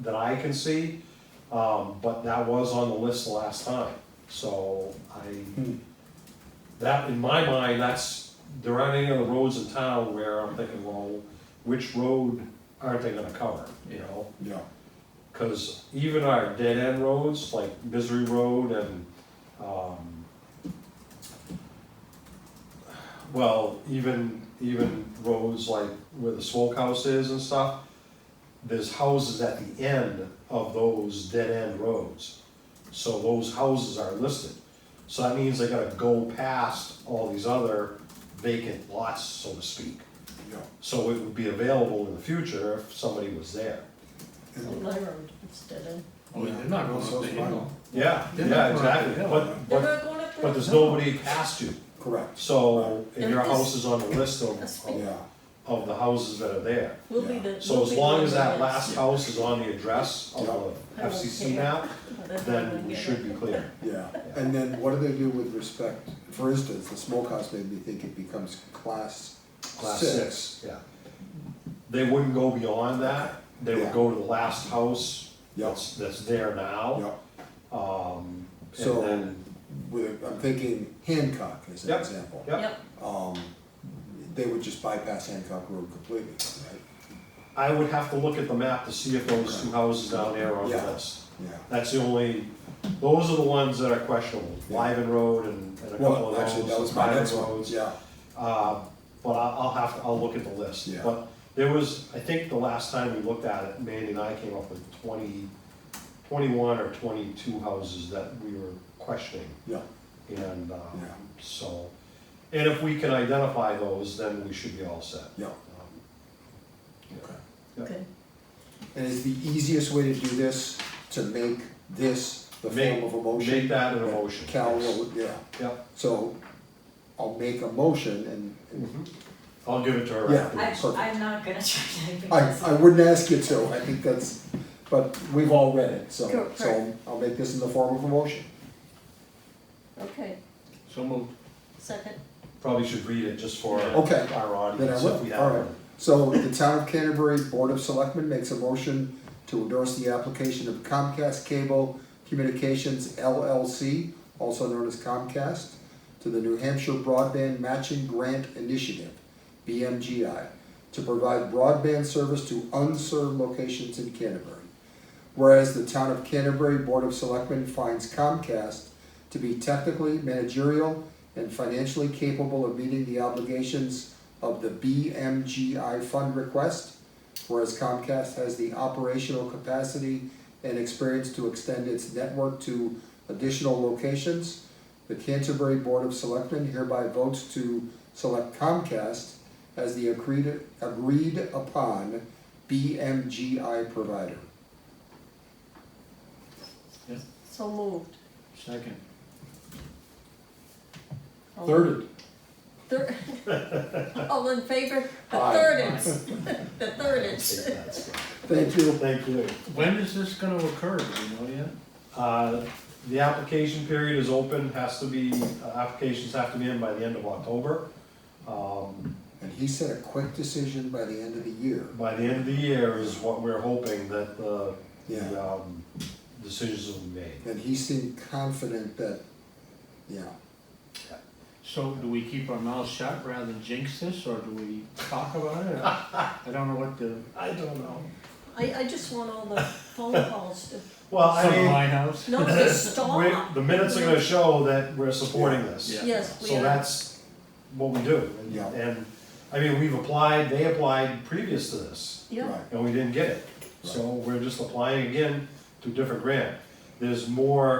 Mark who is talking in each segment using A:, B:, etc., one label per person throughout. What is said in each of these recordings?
A: that I can see, um, but that was on the list the last time, so I,
B: Hmm.
A: that, in my mind, that's, there aren't any other roads in town where I'm thinking, well, which road aren't they gonna cover, you know?
B: Yeah,
A: Because even our dead end roads, like Misery Road and, um, well, even, even roads like where the smokehouse is and stuff, there's houses at the end of those dead end roads. So those houses are listed. So that means they gotta go past all these other vacant lots, so to speak.
B: yeah.
A: So it would be available in the future if somebody was there.
B: And-
C: My road, it's dead end.
D: Oh, they're not going up
B: Also
D: the hill.
A: Yeah,
D: They're not
A: yeah,
D: going
A: exactly,
D: up the hill.
A: but,
C: They're
A: but,
C: not going up there?
A: but there's nobody past you,
B: Correct,
A: so, and your
C: Right.
A: house is on the list of, of-
B: yeah,
A: of the houses that are there.
C: We'll be the.
A: So
C: we'll
A: as
C: be
A: long
C: the
A: as that
C: ones
A: last house is on the address of the
C: Yeah.
A: FCC map,
C: that's-
A: then we should be clear.
B: yeah. And then what do they do with respect, for instance, the smokehouse made me think it becomes class
A: Class
B: six.
A: six, yeah. They wouldn't go beyond that, they would
B: Yeah.
A: go to the last house
B: Yeah,
A: that's, that's there now.
B: yeah.
A: Um, and
B: So,
A: then,
B: with, I'm thinking Hancock as an
A: Yep,
B: example.
A: yep.
C: Yep,
B: Um, they would just bypass Hancock Road completely, right?
A: I would have to look at the map to see if those two houses down there are on the
B: Yeah.
A: list.
B: Yeah.
A: That's the only, those are the ones that are questionable, Lyven Road and, and a couple of
B: Well,
A: those.
B: actually, that was my
A: private
B: next one,
A: roads.
B: yeah,
A: Uh, but I, I'll have, to I'll look at the list.
B: Yeah.
A: But there was, I think the last time we looked at it, Mandy and I came up with twenty, twenty-one or twenty-two houses that we were questioning.
B: yeah,
A: And, um,
B: Yeah.
A: so, and if we can identify those, then we should be all set.
B: yeah,
A: Um,
B: okay.
A: Yeah.
C: okay.
B: And is the easiest way to do this, to make this the
A: Make-
B: form of a motion?
A: Make that an emotion.
B: Cal, what would- yeah,
A: Yep.
B: so I'll make a motion and- and,
A: Mhm. I'll give it to her
B: Mm-hmm. Yeah.
A: after.
C: I,
B: Perfect.
C: I'm not gonna try to make
B: I,
C: this.
B: I wouldn't ask you to, I think that's, but we've all read it, so,
C: Correct.
B: so I'll make this in the form of a motion.
C: Okay,
D: So moved.
C: second,
A: Probably should read it just for
B: Okay.
A: our
B: Then I
A: audience if we
B: will,
A: have
B: alright.
A: one.
B: So the town of Canterbury Board of Selectmen makes a motion to endorse the application of Comcast Cable Communications LLC, also known as Comcast, to the New Hampshire Broadband Matching Grant Initiative, BMGI, to provide broadband service to unserved locations in Canterbury. Whereas the town of Canterbury Board of Selectmen finds Comcast to be technically managerial and financially capable of meeting the obligations of the BMGI fund request, whereas Comcast has the operational capacity and experience to extend its network to additional locations, the Canterbury Board of Selectmen hereby votes to select Comcast as the agreed, agreed upon BMGI provider.
C: so moved.
D: Second.
C: All-
D: Thirded.
C: Third. All in favor? The
B: Aye.
C: third is, the third is.
B: Thank you.
A: Thank you.
D: When is this gonna occur, do you know yet?
A: Uh, The application period is open, has to be, uh, applications have to be in by the end of October. Um,
B: And he said a quick decision by the end of the year.
A: By the end of the year is what we're hoping that the, the
B: Yeah.
A: um, decisions will be made.
B: And he seemed confident that, yeah,
D: So do we keep our mouths shut rather than jinx this, or do we talk about it? I I don't know what to,
A: I don't know.
C: I, I just want all the phone calls to,
A: Well, I
D: some of
A: mean,
D: my house.
C: no, to stop.
A: we're- the minutes are gonna show that we're supporting this.
D: Yeah.
C: Yes, we
A: So
C: are.
A: that's what we do. And-
B: Yeah.
A: And, I mean, we've applied, they applied previous to this.
C: Yeah,
B: right,
A: and we didn't get it. So we're just applying again to a different grant. There's more,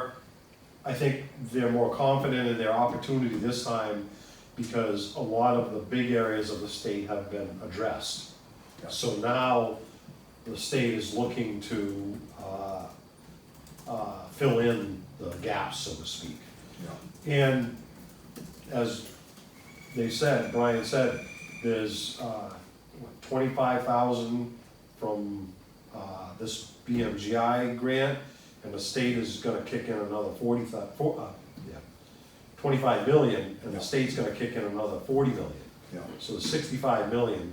A: I think they're more confident in their opportunity this time because a lot of the big areas of the state have been addressed.
B: Yeah.
A: So now the state is looking to uh, uh, fill in the gaps, so to speak.
B: yeah.
A: And as they said, Brian said, there's uh, what, 25,000 from uh, this BMGI grant, and the state is gonna kick in another 40, thou- four- uh, yeah, 25 million, and
B: Yeah.
A: the state's gonna kick in another 40 million.
B: Yeah,
A: So the 65 million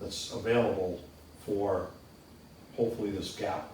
A: that's available for hopefully this gap